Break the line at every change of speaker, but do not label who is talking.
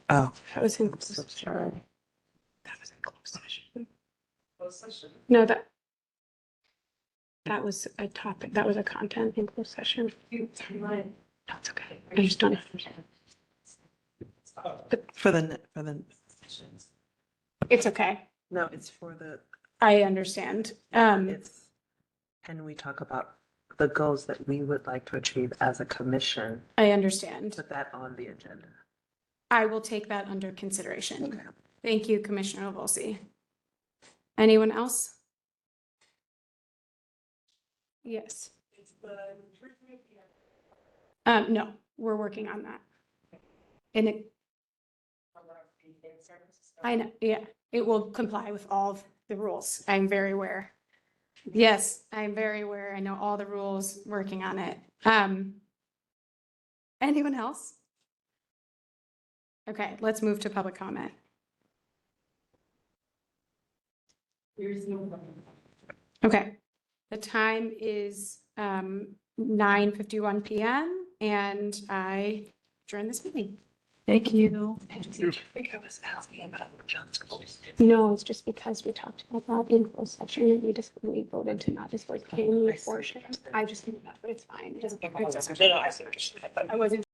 Oh.
That was in
So
closed
sorry.
session. That was in closed session.
Closed session.
No, that. That was a topic, that was a content in closed session.
You, you mind?
That's okay. I just don't.
Stop.
For the, for the,
Sessions.
It's okay.
no, it's for the,
I understand. Um,
it's, can we talk about the goals that we would like to achieve as a commission?
I understand.
Put that on the agenda.
I will take that under consideration. Thank you, Commissioner Volsi. Anyone else? Yes.
It's the improvement we have.
Um, no, we're working on that. And it,
on our fee and services.
I know, yeah, it will comply with all of the rules. I'm very aware. Yes, I'm very aware. I know all the rules, working on it. Um, anyone else? Okay, let's move to public comment.
There is no.
Okay. The time is um nine fifty-one PM and I adjourn this meeting.
Thank you.
Thank
think I was asking about Johnson.
No, it's just because we talked about that in closed session and we just, we voted to not disclose
Oh, I
any
see.
portion. I just think that, but it's fine. It doesn't.
No, no, I see what you're saying.
I wasn't